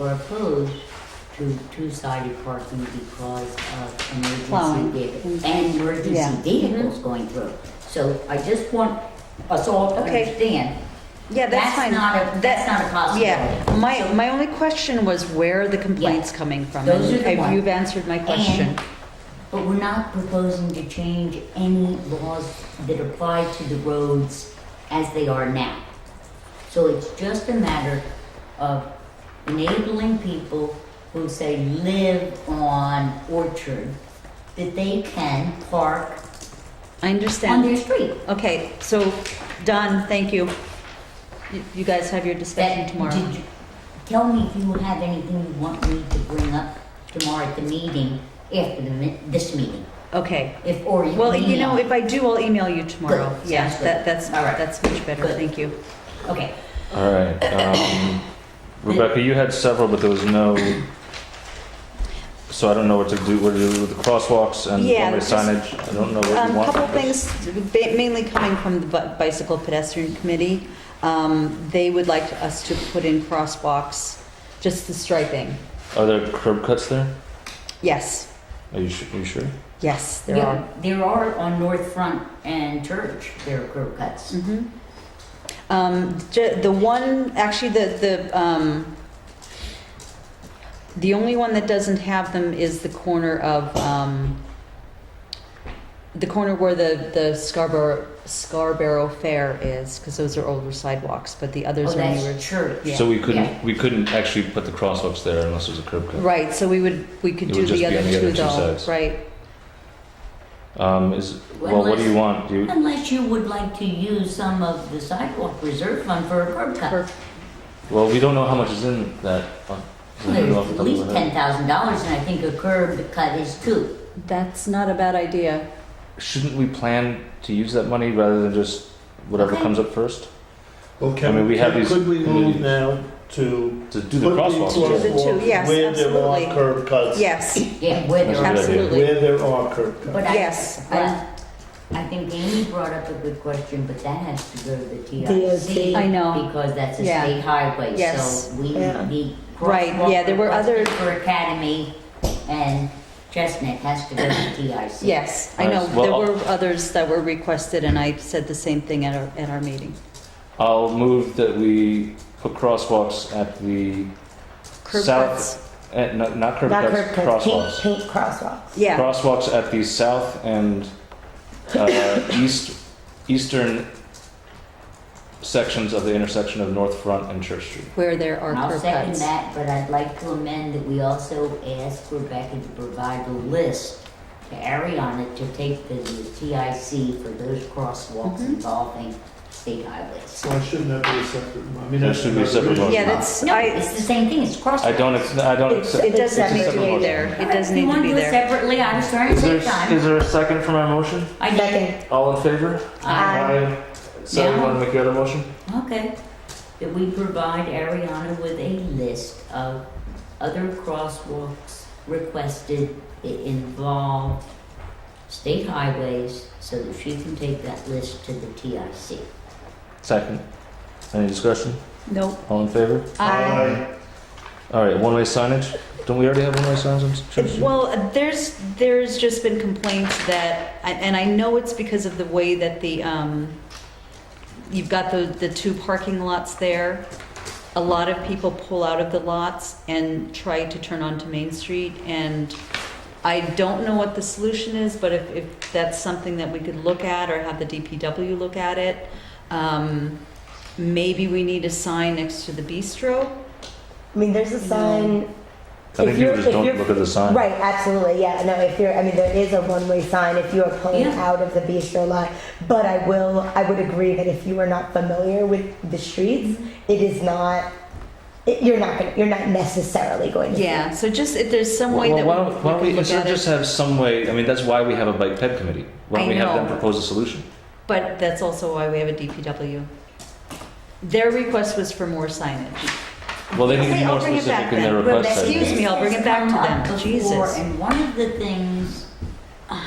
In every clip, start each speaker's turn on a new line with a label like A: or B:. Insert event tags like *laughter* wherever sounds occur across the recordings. A: were opposed to two-sided parking because of
B: Plowing.
A: emergency vehicles and
B: Yeah. Mm-hmm.
A: emergency vehicles going through. So I just want us all to
B: Okay.
A: understand,
B: Yeah, that's
A: that's
B: fine.
A: not a, that's not a
B: Yeah,
A: possibility.
B: my, my only question was where are the complaints coming from?
A: Those are the
B: And
A: ones.
B: You've answered my question.
A: And- But we're not proposing to change any laws that apply to the roads as they are now. So it's just a matter of enabling people who say live on Orchard, that they can park
B: I
A: on
B: understand.
A: their street.
B: Okay, so, Don, thank you. You- You guys have your discussion
A: That,
B: tomorrow.
A: did you- tell me if you have anything you want me to bring up tomorrow at the meeting, after the, mi- this meeting,
B: Okay.
A: if, or you.
B: Well, you know,
A: email.
B: if I do, I'll email you tomorrow.
A: Good,
B: Yeah,
A: sounds good.
B: that, that's,
A: All right.
B: that's much better,
A: Good.
B: thank you.
A: Okay,
C: All right. Um, Rebecca, you had several, but there was no. So I don't know what to do. What to do with the crosswalks and
B: Yeah,
C: one-way
B: just-
C: signage? I don't know what
B: Um,
C: you want.
B: couple things, ba- mainly coming from the Bi- Bicycle Pedestrian Committee. Um, they would like us to put in crosswalks, just the striping.
C: Are there curb cuts there?
B: Yes,
C: Are you, su- are you sure?
B: yes, there
A: Yeah,
B: are.
A: There are on North Front and Church, there are curb cuts. Oh,
B: Mhm. Um, ju- the one, actually, the, the, um, the only one that doesn't have them is the corner of, um, the corner where the, the Scarborough, Scarborough Fair is, because those are older sidewalks, but the
A: Oh,
B: others are newer.
A: that's Church.
B: Yeah.
C: So we couldn't
A: Yeah.
C: we couldn't actually put the crosswalks there unless there's a curb cut.
B: Right, so we would, we could
C: It
B: do
C: would just
B: the
C: be
B: other
C: on the
B: two
C: other two
B: though,
C: sides.
B: right?
C: Um, is well, what do you want? Do you,
A: Unless you would like to use some of the sidewalk reserve fund for a curb cut.
B: For-
C: well, we don't know how much is in that. uh, fund. We don't
A: There's
C: know off the
A: at
C: top of
A: least
C: our head.
A: ten thousand dollars, and I think a curb cut is two.
B: That's not a bad idea.
C: Shouldn't we plan to use that money rather than just whatever
A: Okay.
C: comes up first?
D: Well,
C: I mean,
D: can,
C: we have
D: can-
C: these
D: could we move
C: communities.
D: now to?
C: To do the
D: put
B: To
C: crosswalks,
B: do the two,
D: crosswalks
B: yes,
D: Where there
B: absolutely.
D: are curb cuts.
B: Yes,
A: Yeah, where there
C: That's
A: are.
C: a good idea.
B: absolutely.
D: Where there are curb
A: But
D: cuts.
A: I-
B: Yes,
A: But I think Amy brought up a good question, but that has to go to the
B: DOT.
A: TIC.
B: I know.
A: Because that's a
B: Yeah.
A: state highway,
B: Yes.
A: so we
B: Yeah.
A: need.
B: Right, yeah, there were
A: crosswalk
B: other-
A: For Academy and Chestnut has to go to
B: *coughs*
A: TIC.
B: Yes, I
C: All
B: know,
C: right, well,
B: there
C: I'll-
B: were others that were requested and I said the same thing at our, at our meeting.
C: I'll move that we put crosswalks at the,
B: Curb
C: South-
B: cuts,
C: at, not, not curb
E: Not
C: cuts,
E: curb cuts, paint,
C: crosswalks.
E: paint crosswalks.
B: yeah,
C: Crosswalks at the south and uh, east, eastern sections of the intersection of North Front and Church Street.
B: where there are
A: I'll
B: curb
A: second
B: cuts.
A: that, but I'd like to amend that we also ask Rebecca to provide a list to Ariana to take to the TIC for those crosswalks
B: Mhm.
A: involving state highways.
D: Why shouldn't that be a separate? I mean,
C: That
D: that's
C: should be a
D: not
C: separate
D: really-
C: motion.
B: Yeah, that's,
A: No,
B: I,
A: it's the same thing, it's crosswalks.
C: I don't, ex- I don't
B: it,
C: accept.
B: it doesn't
C: it's a
B: need to
C: separate
B: be
C: motion.
B: there, it does need to be
A: You want to do it
B: there.
A: separately, I was trying to
C: Is there,
A: save
C: s-
A: time.
C: is there a second for my motion?
A: I did.
E: Second,
C: All in favor?
A: Aye.
C: So you
A: Yeah.
C: want to make the other motion?
A: Okay, that we provide Ariana with a list of other crosswalks requested that involve state highways so that she can take that list to the TIC.
C: Second. Any discussion?
B: Nope.
C: All in favor?
B: I,
D: Aye.
C: All right, one-way signage? Don't we already have one-way signs on Church Street?
B: well, there's, there's just been complaints that, and and I know it's because of the way that the, um, you've got the, the two parking lots there. A lot of people pull out of the lots and try to turn onto Main Street and I don't know what the solution is, but if, if that's something that we could look at or have the DPW look at it. Um, maybe we need a sign next to the bistro.
E: I mean, there's a sign.
C: I think people
E: if you're-
C: just
E: if
C: don't
E: you're-
C: look at the sign.
E: Right, absolutely, yeah, no, if you're, I mean, there is a one-way sign if you are pulling
A: Yeah.
E: out of the bistro lot. But I will, I would agree that if you are not familiar with the streets, it is not, it- you're not, gonna- you're not necessarily going to. see
B: Yeah, so just if there's some way
C: Well,
B: that
C: why don't, why don't
B: we, we could look
C: we, instead
B: at
C: of just
B: it,
C: have some way, I mean, that's why we have a bike ped committee. Why don't
B: I
C: we have them
B: know.
C: propose a solution?
B: but that's also why we have a DPW. Their request was for more signage.
C: Well, they need to
B: Okay,
C: be more
B: I'll "Oh, bring it
C: specific
B: back
C: in their
B: then.
C: request. I
B: Excuse
C: think.
B: me, I'll bring it back
A: This
B: to
A: has
B: them.
A: come up
B: Jesus.
A: before, And one of the things, uh,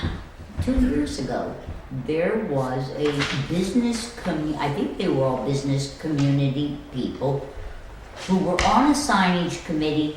A: two years ago, there was a business commu, I think they were all business community people who were on a signage committee